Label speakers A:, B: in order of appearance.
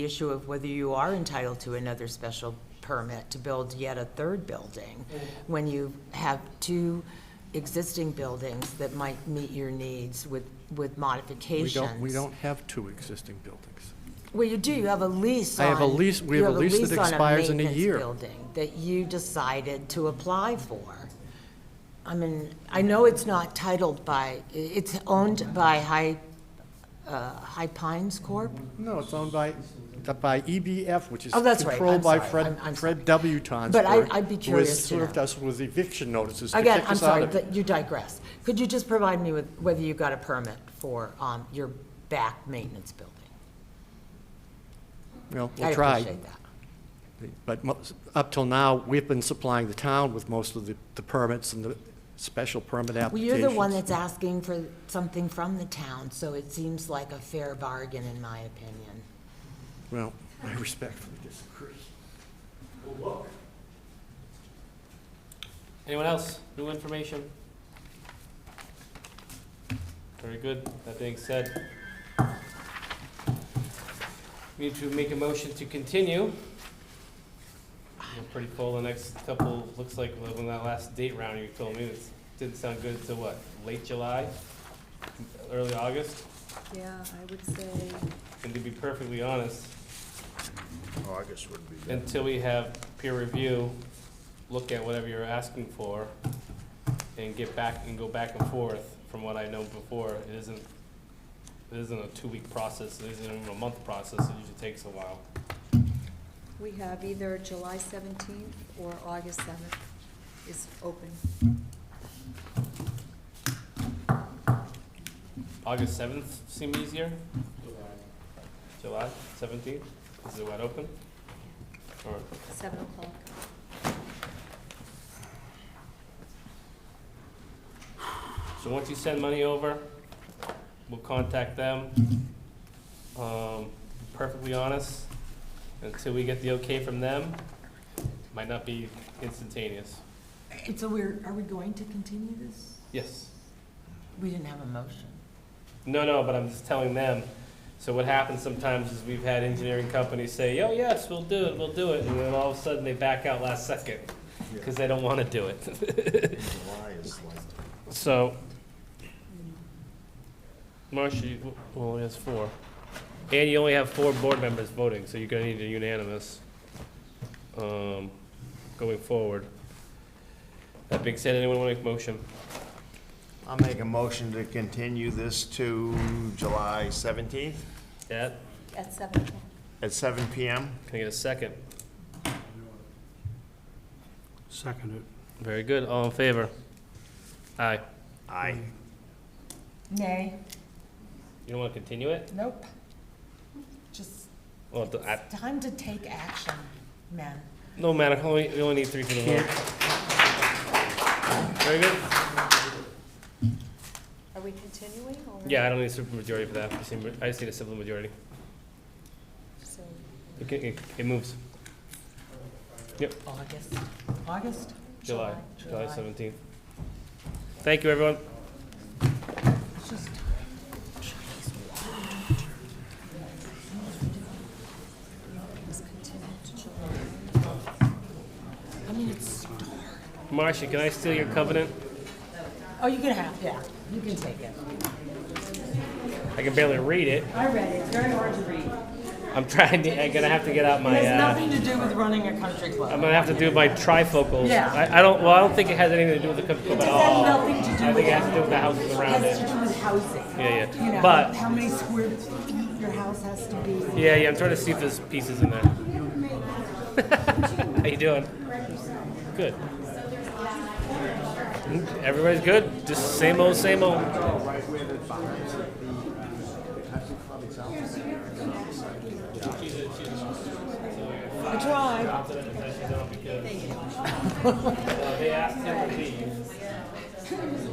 A: the issue of whether you are entitled to another special permit to build yet a third building, when you have two existing buildings that might meet your needs with, with
B: We
A: modifications.
B: don't, we don't have two existing buildings.
A: Well, you do, you have a lease on.
B: I have a lease- we
A: you
B: have a lease that
A: on
B: expires in a
A: maintenance
B: year.
A: Building that you decided to apply for. I mean, I know it's not titled by, i- it's owned by High, uh, High Pines Corp?
B: No, it's owned by, by EBF, which is
A: Oh, that's right. I'm
B: controlled by
A: sorry. I'm-
B: Fred,
A: I'm
B: Fred W. Tonsberg.
A: But I- I'd be
B: Who
A: curious
B: has
A: to
B: served
A: know.
B: us with eviction notices to
A: Again,
B: kick
A: I'm
B: us out
A: sorry,
B: of it.
A: that you digress. Could you just provide me with whether you got a permit for um, your back maintenance building?
B: Well,
A: I
B: we'll try.
A: appreciate that.
B: But mo- up till now, we've been supplying the town with most of the, the permits and the special permit
A: Well,
B: applications.
A: you're the one that's asking for something from the town, so it seems like a fair bargain, in my opinion.
B: Well, I respectfully disagree.
C: Anyone else? New information? Very good. That being said, we need to make a motion to continue. We're pretty full the next couple, looks like when that last date round you told me, it didn't sound good until what? Late July? Early August?
D: Yeah, I would say,
C: And to be perfectly honest,
E: August would be good.
C: until we have peer review, look at whatever you're asking for, and get back, and go back and forth, from what I know before, it isn't, it isn't a two-week process, it isn't even a month process, it usually takes a while.
D: we have either July 17th or August 7th is open.
C: August seventh seem easier? July. July, seventeenth, is it wide open? Or,
D: 7 o'clock.
C: so once you send money over, we'll contact them. Um, perfectly honest, until we get the okay from them, might not be instantaneous.
A: And so we're, are we going to continue this?
C: Yes.
A: We didn't have a motion.
C: No, no, but I'm just telling them. So what happens sometimes is we've had engineering companies say, oh, yes, we'll do it, we'll do it, and then all of a sudden they back out last second because they don't want to do it.
E: July is like,
C: So, Marcia, you- well, only has four. And you only have four board members voting, so you're gonna need a unanimous, um, going forward. That being said, anyone want to make a motion?
E: I'll make a motion to continue this to July 17th
C: Yeah,
D: At 7 o'clock.
E: at 7 PM.
C: can I get a second?
F: Seconded.
C: Very good, all in favor? Aye.
E: Aye.
A: Nay.
C: You don't want to continue it?
A: Nope. Just,
C: Well, th- I,
A: time to take action, men.
C: no matter, only, we only need three for the vote. Very good.
D: Are we continuing or?
C: Yeah, I don't need a super majority for that. I just need- I just need a simple majority.
D: So,
C: It, can- it, it moves.
A: August, August?
C: July, July
A: July.
C: seventeenth. Thank you, everyone.
A: It's just
D: it's continued to July.
C: Marcia, can I steal your covenant?
A: Oh, you can have, yeah, you can take it.
C: I can barely read it.
A: I read it, it's very hard to read.
C: I'm trying to, I'm gonna have to get out
A: It
C: my,
A: has
C: uh,
A: nothing to do with running a country club.
C: I'm gonna have to do my trifocals.
A: Yeah.
C: I, I don't, well, I don't think it has anything to do with the country club at all.
A: nothing to do
C: I
A: with
C: think it has to do with the houses around
A: Has to
C: it.
A: do with housing.
C: Yeah, yeah.
A: You know,
C: But-
A: How many square feet your house has to be.
C: Yeah, yeah, I'm trying to see if there's pieces in there. How you doing? Good. Everybody's good. Just same old, same old.
A: I tried.
C: They asked him to leave.